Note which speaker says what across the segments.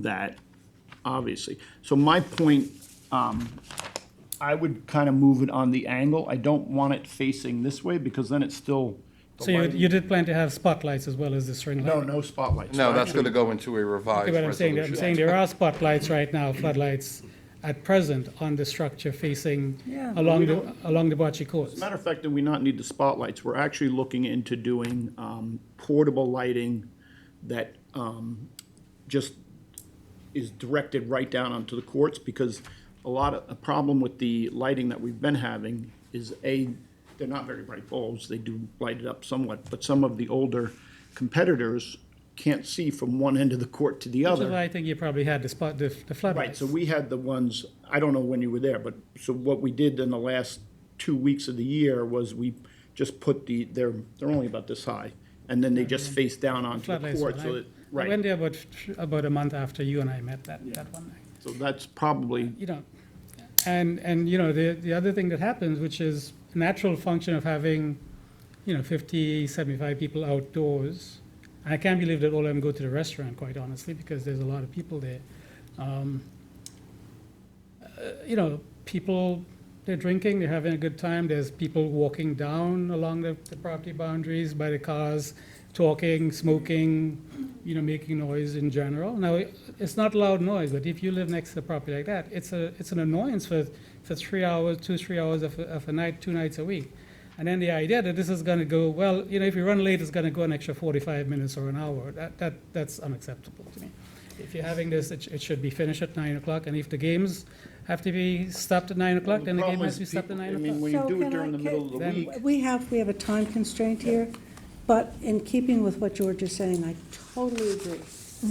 Speaker 1: that, obviously. So my point, um, I would kind of move it on the angle. I don't want it facing this way because then it's still. the
Speaker 2: So you,
Speaker 1: lighting-
Speaker 2: you did plan to have spotlights as well as the string
Speaker 1: No,
Speaker 2: light?
Speaker 1: no spotlights.
Speaker 3: No, that's going to go into a revised
Speaker 2: Okay, But I'm saying, I'm saying
Speaker 3: resolution.
Speaker 2: there are spotlights right now, floodlights at present on the structure facing
Speaker 1: Yeah, but we
Speaker 2: along the,
Speaker 1: don't-
Speaker 2: along the bocce courts.
Speaker 1: Matter of fact, do we not need the spotlights? We're actually looking into doing um, portable lighting that um, just is directed right down onto the courts, because a lot of, a problem with the lighting that we've been having is A, they're not very bright bulbs, they do light it up somewhat, but some of the older competitors can't see from one end of the court to the
Speaker 2: Which is why
Speaker 1: other.
Speaker 2: I think you probably had the spot, the the
Speaker 1: Right,
Speaker 2: floodlights.
Speaker 1: so we had the ones, I don't know when you were there, but, so what we did in the last two weeks of the year was we just put the, they're, they're only about this high, and then they
Speaker 4: Mm-hmm.
Speaker 1: just face down onto the
Speaker 2: Floodlights. one.
Speaker 1: court, so
Speaker 2: I-
Speaker 1: that,
Speaker 2: I went
Speaker 1: right,
Speaker 2: there about, about a month after you and I met that, that one night.
Speaker 1: so that's probably
Speaker 2: you know, and, and, you know, the, the other thing that happens, which is a natural function of having, you know, 50, 75 people outdoors. I can't believe that all of them go to the restaurant, quite honestly, because there's a lot of people there. Um, uh, You know, people, they're drinking, they're having a good time, there's people walking down along the, the property boundaries by the cars, talking, smoking, you know, making noise in general. Now, it- it's not loud noise, but if you live next to a property like that, it's a, it's an annoyance for, for three hours, two, three hours of, a- of a night, two nights a week. And then the idea that this is gonna go, well, you know, if you run late, it's gonna go an extra forty-five minutes or an hour, that, that, that's unacceptable to me. If you're having this, it, sh- it should be finished at nine o'clock, and if the games have to be stopped at nine o'clock, then the game
Speaker 1: problem
Speaker 2: has
Speaker 1: is
Speaker 2: to be stopped
Speaker 1: people-
Speaker 2: at nine
Speaker 1: I mean,
Speaker 2: o'clock.
Speaker 1: when you
Speaker 4: So
Speaker 1: do it
Speaker 4: can I-
Speaker 1: during the middle of the
Speaker 4: can-
Speaker 1: week,
Speaker 4: We have, we have a time constraint here, but in keeping with what George is saying, I totally agree.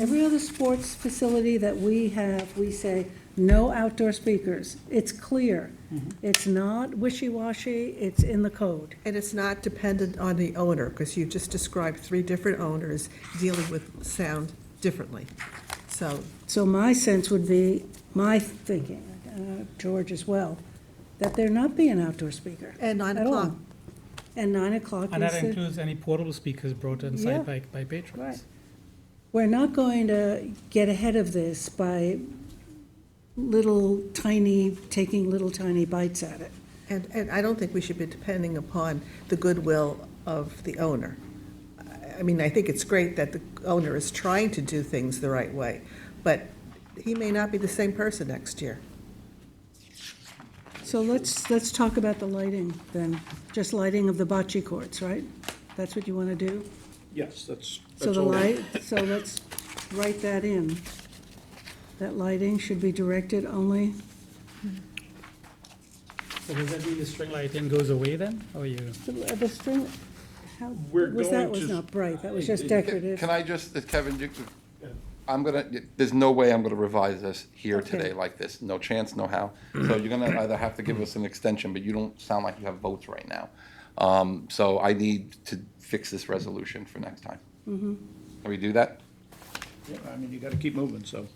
Speaker 4: Every other sports facility that we have, we say, no outdoor speakers. It's clear. It's not wishy-washy, it's in the code.
Speaker 5: And it's not dependent on the owner, because you've just described three different owners dealing with sound differently. So,
Speaker 4: So my sense would be, my thinking, uh, George as well, that there not be an outdoor speaker.
Speaker 5: And nine
Speaker 4: at all.
Speaker 5: o'clock.
Speaker 4: And nine o'clock
Speaker 2: And
Speaker 4: is
Speaker 2: that
Speaker 4: the.
Speaker 2: includes any portable speakers brought
Speaker 4: Yeah.
Speaker 2: inside by, by
Speaker 4: Right.
Speaker 2: patrons.
Speaker 4: We're not going to get ahead of this by little tiny, taking little tiny bites at it.
Speaker 5: and, and I don't think we should be depending upon the goodwill of the owner. I- I mean, I think it's great that the owner is trying to do things the right way, but he may not be the same person next year.
Speaker 4: So let's, let's talk about the lighting then, just lighting of the bocce courts, right? That's what you want to do?
Speaker 1: yes, that's.
Speaker 4: So
Speaker 1: that's
Speaker 4: the
Speaker 1: all.
Speaker 4: light, so let's write that in. That lighting should be directed only,
Speaker 2: So does that mean the string lighting goes away then, or you?
Speaker 4: the- the string, how,
Speaker 1: We're
Speaker 4: was that
Speaker 1: going
Speaker 4: was
Speaker 1: to-
Speaker 4: not bright, that was just
Speaker 3: Can
Speaker 4: decorative.
Speaker 3: can I just, uh, Kevin, you- I'm going to, there's no way I'm going to revise this here
Speaker 4: Okay.
Speaker 3: today like this. No chance, no how. So you're going to either have to give us an extension, but you don't sound like you have votes right now. Um, So I need to fix this resolution for next time. Can we do that?
Speaker 1: Yeah, I mean, you gotta keep moving, so.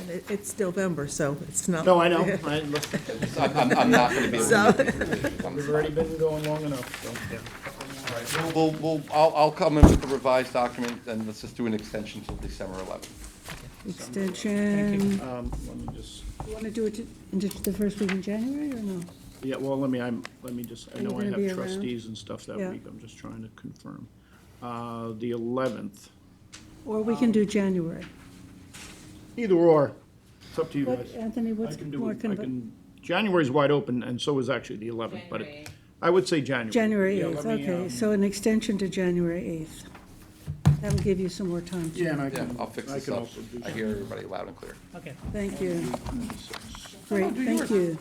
Speaker 5: And it, it's November, so it's not.
Speaker 1: No, I know, I, listen,
Speaker 3: I'm I'm- I'm not going to be able
Speaker 5: So-
Speaker 3: to. make these decisions. I'm
Speaker 1: we've
Speaker 3: sorry.
Speaker 1: already been going long enough, so.
Speaker 3: We'll- We'll, we'll, I'll, I'll come in with the revised document, and let's just do an extension till December 11th.
Speaker 4: Extension,
Speaker 1: Um, let me just,
Speaker 4: you want to do it into the first week in January or no?
Speaker 1: yeah, well, let me, I'm, let me just, I
Speaker 4: Are you
Speaker 1: know I
Speaker 4: gonna be
Speaker 1: have
Speaker 4: around?
Speaker 1: trustees and stuff that
Speaker 4: Yeah.
Speaker 1: week, I'm just trying to confirm. Uh, the eleventh,
Speaker 4: Or we
Speaker 1: Um,
Speaker 4: can do January.
Speaker 1: either or, it's up to you
Speaker 4: What,
Speaker 1: guys.
Speaker 4: Anthony,
Speaker 1: I
Speaker 4: what's
Speaker 1: can do,
Speaker 4: more,
Speaker 1: it. I
Speaker 4: conven-
Speaker 1: can, January's wide open, and so is actually the eleventh, but it- I would say January.
Speaker 4: January
Speaker 1: Yeah, let
Speaker 4: 8th,
Speaker 1: me,
Speaker 4: okay,
Speaker 1: um,
Speaker 4: so an extension to January 8th. That'll give you some more time.
Speaker 1: Yeah, and I
Speaker 3: Yeah,
Speaker 1: can,
Speaker 3: I'll fix
Speaker 1: I
Speaker 3: this
Speaker 1: can
Speaker 3: up.
Speaker 1: also do.
Speaker 3: I hear everybody loud and clear.
Speaker 2: Okay.
Speaker 4: Thank you. Great, thank you.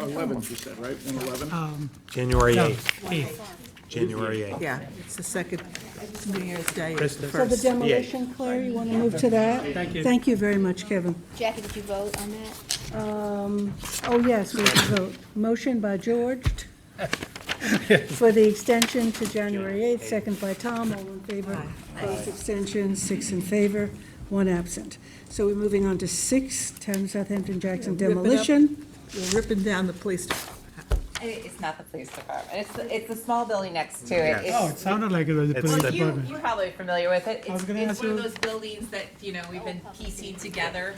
Speaker 1: Eleventh, you said, right, one eleven?
Speaker 6: January
Speaker 2: No,
Speaker 6: 8th,
Speaker 2: eighth.
Speaker 6: January 8th.
Speaker 5: Yeah, it's the second New Year's Day, is the
Speaker 6: Kristen.
Speaker 4: So the
Speaker 5: first.
Speaker 4: demolition, Claire, you want to move to that?
Speaker 2: Thank you.
Speaker 4: Thank you very much, Kevin.
Speaker 7: Jackie, did you vote on that?
Speaker 4: Oh, yes, we have to vote. Motion by George t- for the extension to January 8th, second by Tom, all in favor. Opposed, abstentions, six in favor, one absent. So we're moving on to six, 10 Southampton Jackson
Speaker 5: Rip it up.
Speaker 4: demolition.
Speaker 5: You're ripping down the police
Speaker 8: it's not the police department. It's, the- it's the small building next to it.
Speaker 2: Oh,
Speaker 8: It's-
Speaker 2: it sounded Oh, like it was the
Speaker 6: It's
Speaker 2: police
Speaker 6: the-
Speaker 8: Well, you,
Speaker 2: department.
Speaker 8: you're probably familiar with it. It's,
Speaker 2: was gonna
Speaker 8: it's
Speaker 2: ask
Speaker 8: one of
Speaker 2: you-
Speaker 8: those buildings that, you know, we've been piecing together